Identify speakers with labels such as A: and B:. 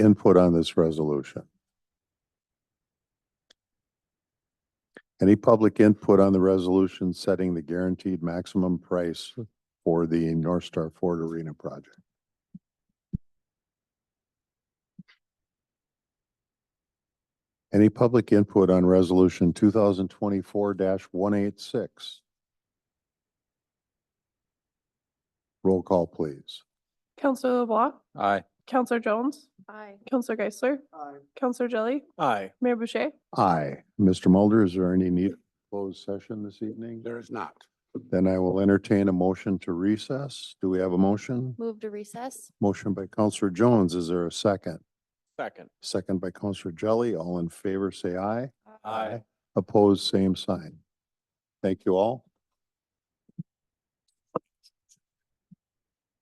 A: input on this resolution? Any public input on the resolution setting the guaranteed maximum price for the North Star Ford Arena project? Any public input on resolution two thousand twenty-four one eight six? Roll call, please.
B: Counselor LeBlanc,
C: Aye.
B: Counselor Jones,
D: Aye.
B: Counselor Geisler,
D: Aye.
B: Counselor Jelly,
C: Aye.
B: Mayor Boucher.
A: Aye. Mr. Mulder, is there any need for closed session this evening?
C: There is not.
A: Then I will entertain a motion to recess. Do we have a motion?
D: Move to recess?
A: Motion by Counselor Jones. Is there a second?
C: Second.
A: Second by Counselor Jelly. All in favor, say aye.
C: Aye.
A: Opposed, same sign. Thank you all.